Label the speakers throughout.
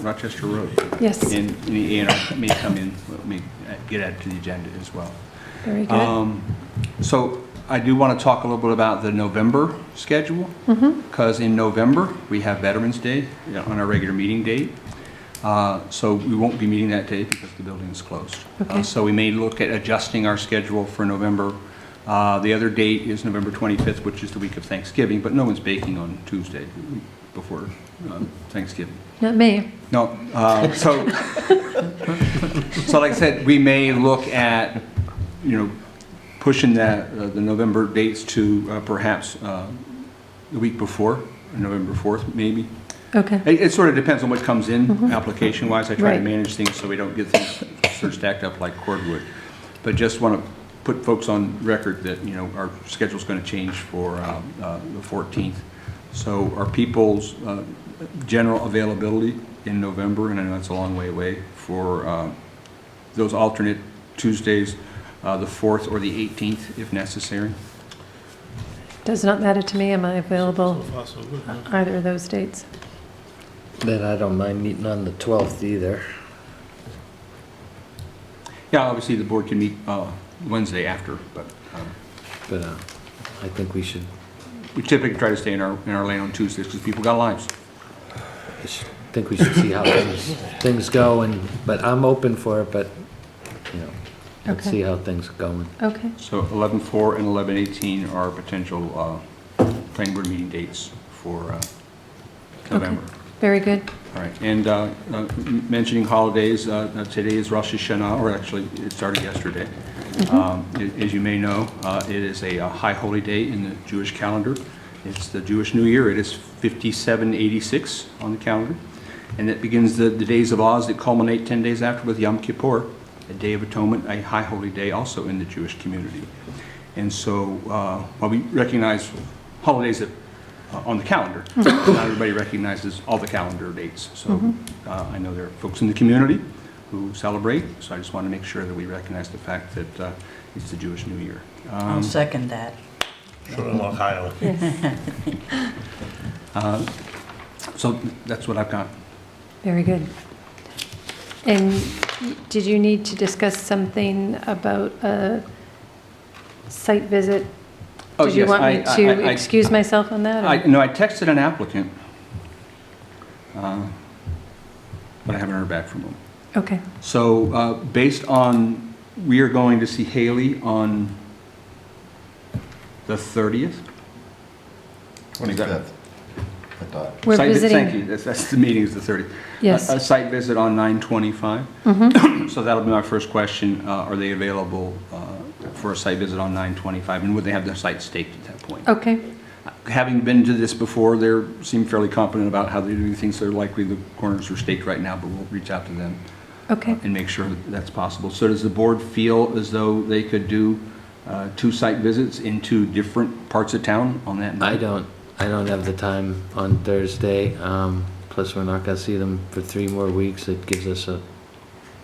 Speaker 1: Rochester Road.
Speaker 2: Yes.
Speaker 1: And the A and R may come in, may uh, get added to the agenda as well.
Speaker 2: Very good.
Speaker 1: Um, So I do want to talk a little bit about the November schedule.
Speaker 2: Mm-hmm.
Speaker 1: Because in November, we have Veterans Day you know, on our regular meeting date. Uh, So we won't be meeting that day because the building is closed. Uh,
Speaker 2: Okay.
Speaker 1: So we may look at adjusting our schedule for November. Uh, The other date is November 25th, which is the week of Thanksgiving, but no one's baking on Tuesday before uh, Thanksgiving.
Speaker 2: Not me.
Speaker 1: No, uh, so, so like I said, we may look at, you know, pushing that, uh, the November dates to uh, perhaps uh, the week before, November 4th, maybe.
Speaker 2: Okay.
Speaker 1: It, it sort of depends on what comes in, application-wise. I try to
Speaker 2: Right.
Speaker 1: manage things so we don't get things sort of stacked up like cordwood. But just want to put folks on record that, you know, our schedule's going to change for um, uh, the 14th. So are people's uh, general availability in November, and I know that's a long way away, for uh, those alternate Tuesdays, uh, the 4th or the 18th, if necessary?
Speaker 2: Does not matter to me. Am I available
Speaker 3: So far, so good, huh?
Speaker 2: either of those dates?
Speaker 4: Then I don't mind meeting on the 12th either.
Speaker 1: Yeah, obviously, the board can meet uh, Wednesday after, but um,
Speaker 4: But uh, I think we should,
Speaker 1: We typically try to stay in our, in our lane on Tuesdays because people got lives.
Speaker 4: I sh- think we should see how things, things go and, but I'm open for it, but, you know, let's
Speaker 2: Okay.
Speaker 4: see how things are going.
Speaker 2: Okay.
Speaker 1: So 11-4 and 11-18 are potential uh, planning board meeting dates for uh, November.
Speaker 2: Very good.
Speaker 1: All right, and uh, uh, m- mentioning holidays, uh, uh, today is Rosh Hashanah, or actually, it started yesterday. Um, a- As you may know, uh, it is a uh, high holy day in the Jewish calendar. It's the Jewish New Year, it is 5786 on the calendar, and it begins the the days of Oz that culminate 10 days after with Yom Kippur, a day of atonement, a high holy day also in the Jewish community. And so, uh, while we recognize holidays that uh, on the calendar.
Speaker 2: Mm-hmm.
Speaker 1: Not everybody recognizes all the calendar dates, so uh, I know there are folks in the community who celebrate, so I just want to make sure that we recognize the fact that uh, it's the Jewish New Year.
Speaker 5: I'll second that.
Speaker 3: From Ohio.
Speaker 1: Uh, So that's what I've got.
Speaker 2: Very good. And did you need to discuss something about a site visit?
Speaker 1: Oh,
Speaker 2: Did you
Speaker 1: yes,
Speaker 2: want me
Speaker 1: I- I-
Speaker 2: to
Speaker 1: I-
Speaker 2: excuse myself on that? or-
Speaker 1: I, no, I texted an applicant, uh, but I haven't heard back from him.
Speaker 2: Okay.
Speaker 1: So uh, based on, we are going to see Haley on the 30th?
Speaker 6: Twenty-fifth, I thought.
Speaker 2: We're
Speaker 1: Site vi- Thank
Speaker 2: visiting,
Speaker 1: you, Uh, that's, that's, the meeting is the 30th.
Speaker 2: Yes. Mm-hmm.
Speaker 1: A a site visit on 925. So that'll be my first question, uh, are they available uh, for a site visit on 925? And would they have their site staked at that point?
Speaker 2: okay,
Speaker 1: Having been to this before, they seem fairly confident about how they do things, they're likely the corners are staked right now, but we'll reach out to them
Speaker 2: okay.
Speaker 1: uh, and make sure that that's possible. So does the board feel as though they could do uh, two site visits in two different parts of town on that night?
Speaker 4: I don't, I don't have the time on Thursday, um, plus we're not gonna see them for three more weeks. It gives us a,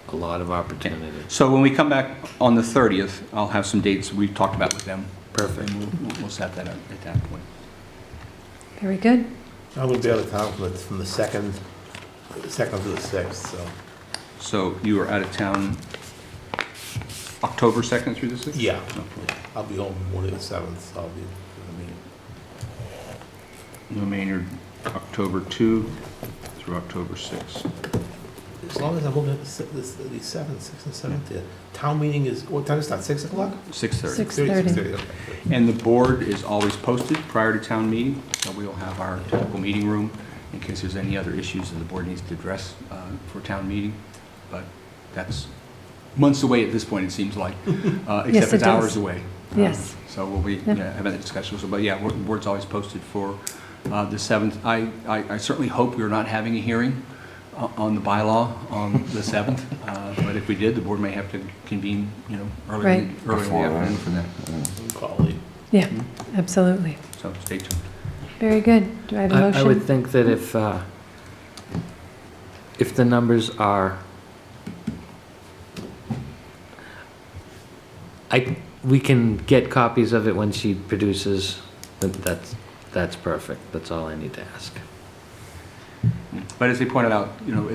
Speaker 4: a lot of opportunity.
Speaker 1: So when we come back on the 30th, I'll have some dates we've talked about with them. Perfect. And we'll, we'll set that up at that point.
Speaker 2: Very good.
Speaker 3: I will be out of town from the, from the second, the second to the sixth, so.
Speaker 1: So you are out of town October 2nd through the 6th?
Speaker 3: Yeah.
Speaker 1: Okay.
Speaker 3: I'll be home morning of the seventh, so I'll be, I mean,
Speaker 1: No Maynard, October 2 through October 6.
Speaker 3: as long as I'm home at the se- the, the seventh, sixth and seventh, the town meeting is, what time is that, six o'clock?
Speaker 1: 6:30.
Speaker 2: Six.
Speaker 3: Six thirty,
Speaker 2: 6:30.
Speaker 3: six thirty, okay.
Speaker 1: And the board is always posted prior to town meeting, so we'll have our typical meeting room in case there's any other issues that the board needs to address uh, for town meeting. But that's months away at this point, it seems like, uh,
Speaker 2: Yes,
Speaker 1: except
Speaker 2: it
Speaker 1: it's hours
Speaker 2: does.
Speaker 1: away. Um,
Speaker 2: Yes.
Speaker 1: So we'll be
Speaker 2: Yeah.
Speaker 1: yeah, having that discussion, so, but yeah, we're- the board's always posted for uh, the 7th. I I I certainly hope we're not having a hearing uh, on the bylaw on the 7th, uh, but if we did, the board may have to convene, you know, early
Speaker 2: Right.
Speaker 1: in the- early in the
Speaker 6: Before, right?
Speaker 1: afternoon for that,
Speaker 3: Quality.
Speaker 2: Yeah, absolutely.
Speaker 1: so stay tuned.
Speaker 2: Very good. Do I have a
Speaker 4: I, I would
Speaker 2: motion?
Speaker 4: think that if, uh, if the numbers are, I, we can get copies of it when she produces, that- that's, that's perfect, that's all I need to ask.
Speaker 1: But as they pointed out, you know,